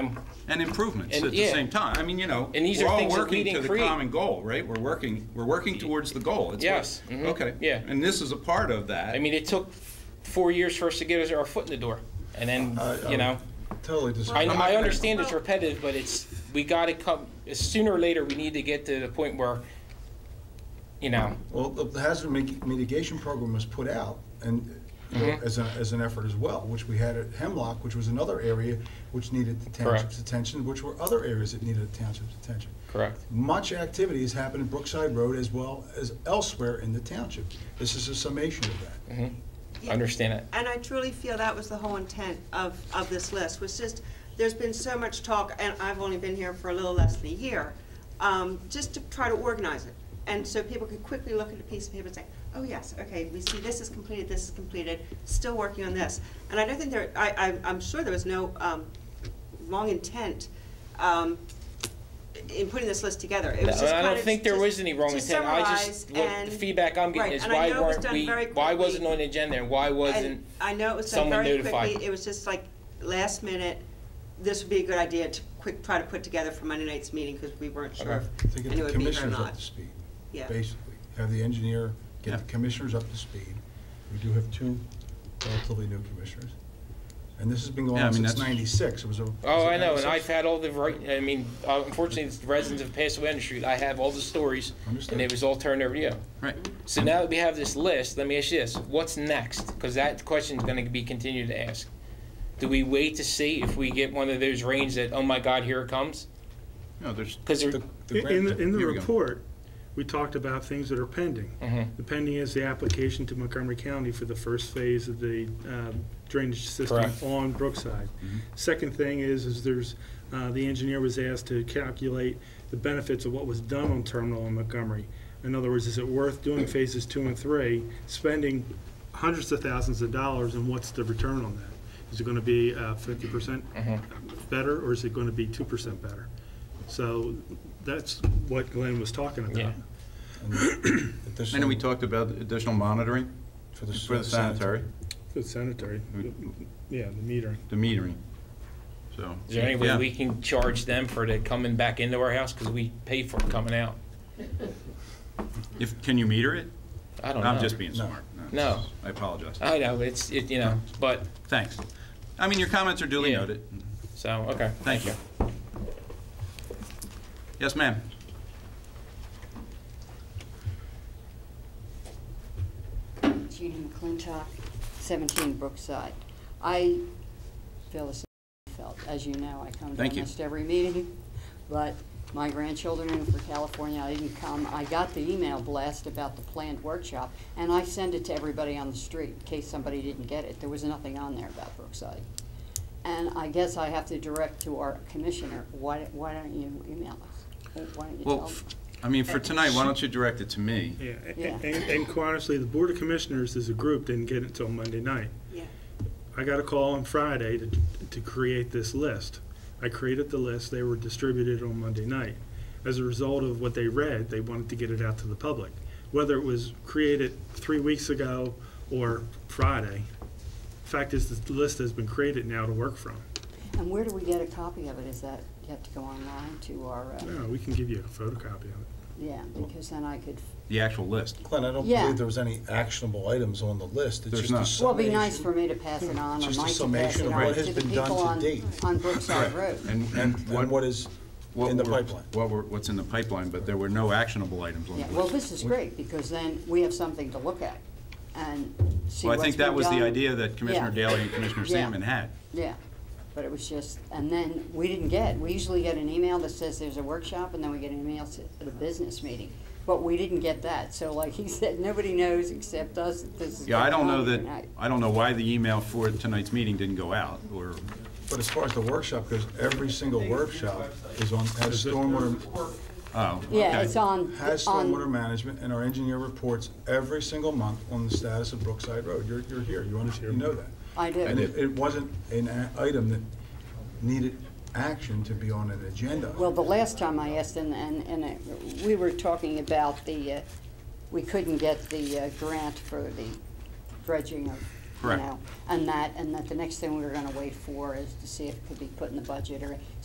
and improvements And- at the yeah. same time. I mean, you know, And these we're are all things that we working to didn't the create. common goal, right? We're working, we're working towards the goal. It's Yes. what- Mhm. Okay. Yeah. And this is a part of that. I mean, it took four years for us to get us our foot in the door, and then Uh, I- I you know, Totally disagree. I, not I gonna- understand it's repetitive, but it's we got to come sooner or later. We need to get to the point where, you know, Well, the the hazard mi- mitigation program was put out and, you know, Mm-hmm. as a, as an effort as well, which we had at Hemlock, which was another area which needed the township's Correct. attention, which were other areas that needed the township's attention. Correct. Much activity has happened in Brookside Road as well as elsewhere in the township. This is a summation of that. I understand it. And I truly feel that was the whole intent of, of this list, was just, there's been so much talk, and I've only been here for a little less than a year, um, just to try to organize it. And so people could quickly look at a piece of paper and say, oh, yes, okay, we see this is completed, this is completed, still working on this. And I don't think there, I, I, I'm sure there was no, um, wrong intent, um, in putting this list together. It was No, just I kind don't of think there just was any wrong to intent. I just summarize what and- the feedback I'm getting Right, is and I why know it was weren't done we? very Why quickly. wasn't on the agenda? And why wasn't And I know it was done someone very notified? quickly, it was just like last minute, this would be a good idea to quick, try to put together for Monday night's meeting, because we weren't sure if To get anyone the would be here or commissioners up not. to speed, Yeah. basically. Have the engineer get the Yeah. commissioners up to speed. We do have two relatively new commissioners. And this has been going Yeah, I on mean, since that's- ninety-six. It was a. was Oh, it I know, and 96? I've had all the right. I mean, uh, unfortunately, it's residents of Paso Bend Street. I have all the stories, Understood. and it was all turned over to you. Right. So now that we have this list, let me ask you this: What's next? Because that question is going to be continued to ask. Do we wait to see if we get one of those rains that, oh my God, here it comes? No, there's Because The- the In- In, grant- the- in the Here we go. report, we talked about things that are pending. The pending is the application to Montgomery County for the first phase of the um, drainage system Correct. on Brookside. Second thing is, is there's, uh, the engineer was asked to calculate the benefits of what was done on Terminal in Montgomery. In other words, is it worth doing phases two and three, spending hundreds of thousands of dollars, and what's the return on that? Is it going to be uh, fifty percent better, or is it going to be two percent better? So that's what Glenn was talking Yeah. about. Additional- And then we talked about additional monitoring For the for the sanitary, The sanitary, yeah, the metering. the metering. So. is there any way yeah. we can charge them for the coming back into our house? Because we pay for it coming out. If, can you meter it? I don't know. I'm just being smart. Oh, No. Uh, I apologize. I know it's it, you know, but Thanks. I mean, your comments are duly Yeah. noted. so okay. Thank you. Yes, ma'am. Judy McClintock, 17 Brookside. I feel the same way I felt. As you know, I come to Thank you. almost every meeting, but my grandchildren are for California. I didn't come. I got the email blast about the planned workshop, and I send it to everybody on the street in case somebody didn't get it. There was nothing on there about Brookside. And I guess I have to direct to our commissioner, why why don't you email us? Why don't you tell Well, them? f- I mean, for tonight, why don't you direct it to me? Yeah, a- Yeah. and, and quite honestly, the Board of Commissioners as a group didn't get it until Monday night. Yeah. I got a call on Friday to, to create this list. I created the list, they were distributed on Monday night. As a result of what they read, they wanted to get it out to the public. Whether it was created three weeks ago or Friday, fact is, the list has been created now to work from. And where do we get a copy of it? Is that, you have to go online to our, uh, Yeah, we can give you a photocopy of it. yeah, because then I could The actual list. Glenn, I don't Yeah. believe there was any actionable items on the list. It's There's just a not. Well, it'd be summation. nice for me to pass it on, or Just a Mike to pass summation it of on what to has the been done people to on, date. on Brookside Road. And, And, and what is what in the were- pipeline. What were, what's in the pipeline, but there were no actionable items on Yeah, the well, list. this is great, because then we have something to look at and see Well, I what's think been that was the done. idea that Commissioner Yeah. Daley and Commissioner Yeah. Salmon had. Yeah, but it was just, and then we didn't get, we usually get an email that says there's a workshop, and then we get an email to the business meeting. But we didn't get that, so like he said, nobody knows except us that this is Yeah, I don't going know on that, tonight. I don't know why the email for tonight's meeting didn't go out, or, But as far as the workshop goes, every single workshop is on, has stormwater, oh, Yeah, okay. it's on, has stormwater on, management, and our engineer reports every single month on the status of Brookside Road. You're, you're here, you understand, you know that. I do. And it, it wasn't an a- item that needed action to be on an agenda. Well, the last time I asked, and, and, and it- we were talking about the, uh, we couldn't get the uh, grant for the dredging of you Correct. know? And that, and that the next thing we were gonna wait for is to see if it could be put in the budget or